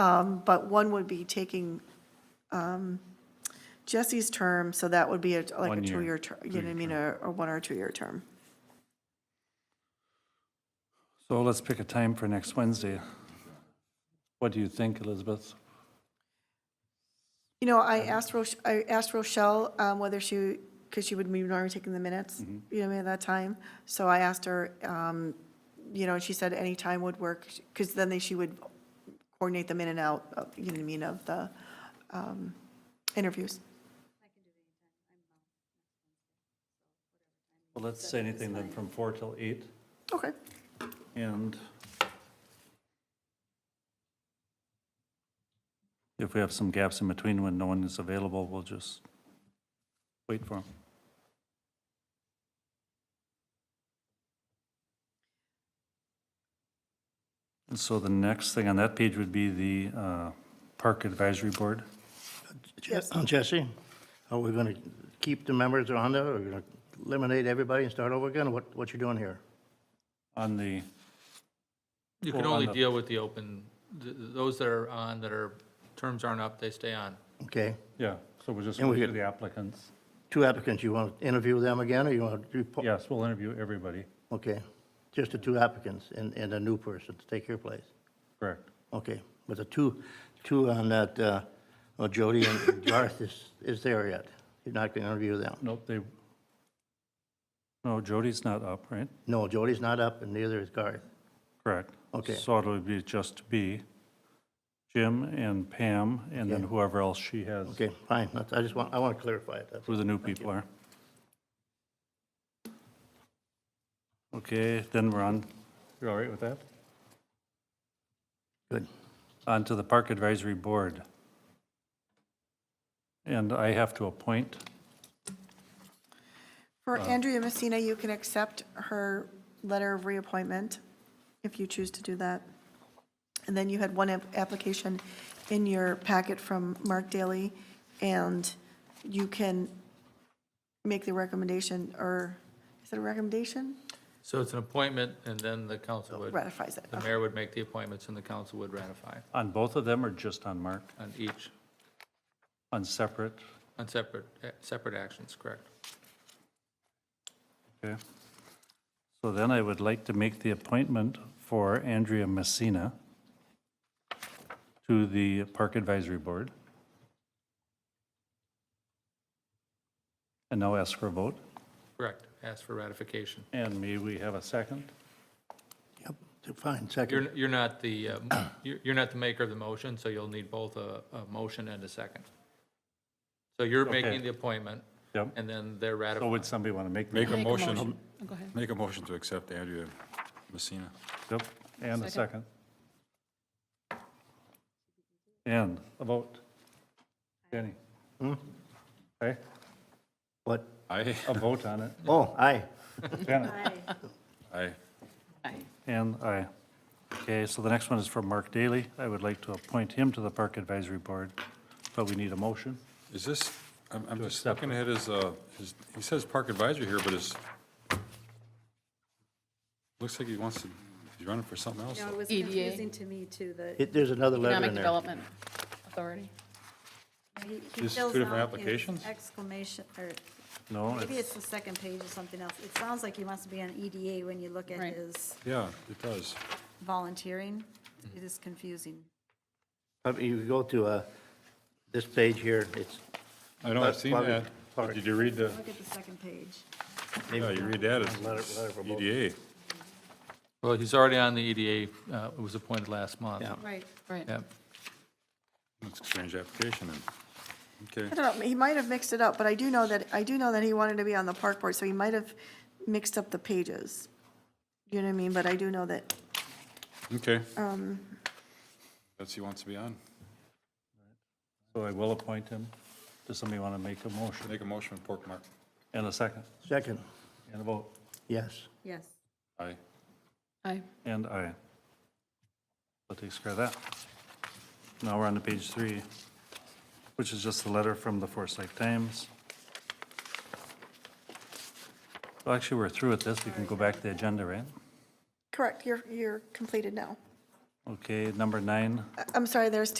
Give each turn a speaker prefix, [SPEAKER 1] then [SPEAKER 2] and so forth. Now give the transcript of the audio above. [SPEAKER 1] Um, But one would be taking um, Jesse's term, so that would be a like a
[SPEAKER 2] One year,
[SPEAKER 1] two-year term, you know what I mean, a a one or two-year term.
[SPEAKER 2] So let's pick a time for next Wednesday. What do you think, Elizabeth?
[SPEAKER 1] You know, I asked Rochelle, I asked Rochelle um, whether she, because she would be normally taking the minutes, you know, at that time. So I asked her, um, you know, and she said any time would work, because then they- she would coordinate them in and out, of- you know what I mean, of the um, interviews.
[SPEAKER 2] Well, let's say anything then from four till eight
[SPEAKER 1] Okay.
[SPEAKER 2] and if we have some gaps in between when no one is available, we'll just wait for them. And so the next thing on that page would be the uh, Park Advisory Board.
[SPEAKER 3] Je-
[SPEAKER 1] Yes.
[SPEAKER 3] Jesse, are we going to keep the members on there, or are we going to eliminate everybody and start over again? What, what you doing here?
[SPEAKER 2] On the,
[SPEAKER 4] You can
[SPEAKER 2] Well, on
[SPEAKER 4] only
[SPEAKER 2] the-
[SPEAKER 4] deal with the open, th- th- those that are on, that are, terms aren't up, they stay on.
[SPEAKER 3] Okay,
[SPEAKER 2] yeah, so we're just
[SPEAKER 3] And
[SPEAKER 2] going
[SPEAKER 3] we
[SPEAKER 2] to
[SPEAKER 3] could-
[SPEAKER 2] the applicants.
[SPEAKER 3] two applicants, you want to interview them again, or you want to report?
[SPEAKER 2] Yes, we'll interview everybody,
[SPEAKER 3] Okay, just the two applicants and, and a new person to take your place.
[SPEAKER 2] correct?
[SPEAKER 3] Okay, but the two, two on that, uh, well, Jody and Garth is, is there yet? You're not going to interview them?
[SPEAKER 2] Nope, they, no, Jody's not up, right?
[SPEAKER 3] No, Jody's not up, and neither is Garth.
[SPEAKER 2] Correct.
[SPEAKER 3] Okay.
[SPEAKER 2] So it would be just be Jim and Pam, and then
[SPEAKER 3] Okay.
[SPEAKER 2] whoever else she has,
[SPEAKER 3] Okay, fine, that's, I just want, I want to clarify it, that's
[SPEAKER 2] who the new people are. Okay, then we're on, you're all right with that?
[SPEAKER 3] good.
[SPEAKER 2] On to the Park Advisory Board. And I have to appoint,
[SPEAKER 1] For
[SPEAKER 4] Uh.
[SPEAKER 1] Andrea Messina, you can accept her letter of reappointment if you choose to do that. And then you had one app- application in your packet from Mark Daly, and you can make the recommendation, or is it a recommendation?
[SPEAKER 4] So it's an appointment, and then the council would,
[SPEAKER 1] Ratifies it.
[SPEAKER 4] the mayor would make the appointments, and the council would ratify
[SPEAKER 2] on both of them or just on Mark?
[SPEAKER 4] on each,
[SPEAKER 2] On separate?
[SPEAKER 4] on separate, eh, separate actions, correct?
[SPEAKER 2] Okay. So then I would like to make the appointment for Andrea Messina to the Park Advisory Board. And now ask for a vote.
[SPEAKER 4] Correct, ask for ratification.
[SPEAKER 2] And may we have a second?
[SPEAKER 3] Yep, fine, second.
[SPEAKER 4] You're, you're not the, uh, mo- you're you're not the maker of the motion, so you'll need both a, a motion and a second. So you're
[SPEAKER 2] Okay.
[SPEAKER 4] making the appointment,
[SPEAKER 2] Yep.
[SPEAKER 4] and then they're
[SPEAKER 2] So
[SPEAKER 4] ratifying.
[SPEAKER 2] would somebody want to make? the
[SPEAKER 5] Make a
[SPEAKER 2] motion?
[SPEAKER 5] motion, Oh, make a motion to accept Andrea Messina.
[SPEAKER 2] Yep, and a second. And a vote. Jenny?
[SPEAKER 5] Hmm?
[SPEAKER 2] Okay,
[SPEAKER 3] What?
[SPEAKER 5] Aye.
[SPEAKER 2] a vote on it.
[SPEAKER 3] Oh, aye.
[SPEAKER 2] Janet?
[SPEAKER 5] Aye.
[SPEAKER 2] And I. Okay, so the next one is from Mark Daly. I would like to appoint him to the Park Advisory Board, but we need a motion.
[SPEAKER 5] Is this, I'm, I'm just
[SPEAKER 2] accept
[SPEAKER 5] looking at his, uh, his, he says park advisory here, but it's, looks like he wants to, he's running for something else.
[SPEAKER 6] No, it was
[SPEAKER 7] EDA.
[SPEAKER 6] confusing to me too, the,
[SPEAKER 3] It- There's another letter
[SPEAKER 7] Economic
[SPEAKER 3] in there.
[SPEAKER 7] Development Authority.
[SPEAKER 6] he- he
[SPEAKER 5] These
[SPEAKER 6] fills
[SPEAKER 5] two different
[SPEAKER 6] out his
[SPEAKER 5] applications?
[SPEAKER 6] exclamation, or
[SPEAKER 2] No,
[SPEAKER 6] maybe
[SPEAKER 2] Oh, it's-
[SPEAKER 6] it's the second page or something else. It sounds like he wants to be on EDA when you look at
[SPEAKER 7] Right.
[SPEAKER 6] his
[SPEAKER 5] Yeah, it does.
[SPEAKER 6] volunteering. It is confusing.
[SPEAKER 3] I mean, You go to uh, this page here, it's,
[SPEAKER 5] I know, I've seen
[SPEAKER 3] Bobby-
[SPEAKER 5] that.
[SPEAKER 3] Bobby.
[SPEAKER 5] Did you read the,
[SPEAKER 6] Look at the second page.
[SPEAKER 5] yeah, you read that, E
[SPEAKER 3] Letter-
[SPEAKER 5] it's
[SPEAKER 3] letter for both.
[SPEAKER 5] EDA.
[SPEAKER 4] Well, he's already on the EDA, uh, was appointed last month.
[SPEAKER 3] Yeah.
[SPEAKER 7] Right. Right.
[SPEAKER 4] Yep.
[SPEAKER 5] That's a strange application then.
[SPEAKER 1] I
[SPEAKER 5] Okay,
[SPEAKER 1] don't know, he might have mixed it up, but I do know that, I do know that he wanted to be on the park board, so he might have mixed up the pages. You know what I mean? But I do know that,
[SPEAKER 5] okay. Um. That's he wants to be on.
[SPEAKER 2] so I will appoint him. Does somebody want to make a motion?
[SPEAKER 5] Make a motion, pork mark.
[SPEAKER 2] And a second,
[SPEAKER 3] second,
[SPEAKER 2] and a vote,
[SPEAKER 3] yes.
[SPEAKER 6] Yes.
[SPEAKER 5] Aye.
[SPEAKER 7] Aye.
[SPEAKER 2] and I. That takes care of that. Now we're on to page three, which is just the letter from the Forsyth Times. Well, actually, we're through with this. We can go back to the agenda, right?
[SPEAKER 1] correct, you're, you're completed now.
[SPEAKER 8] Okay, number nine.
[SPEAKER 2] I'm sorry, there's